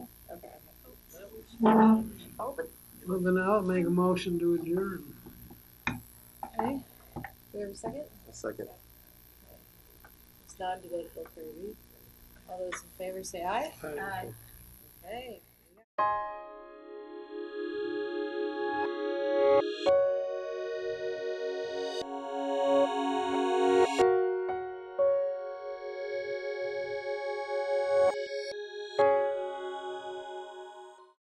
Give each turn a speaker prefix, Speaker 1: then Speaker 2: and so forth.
Speaker 1: Well, then I'll make a motion to adjourn.
Speaker 2: Okay, do we have a second?
Speaker 3: Second.
Speaker 2: It's non-debatable, Kirby. All those in favor say aye. Okay.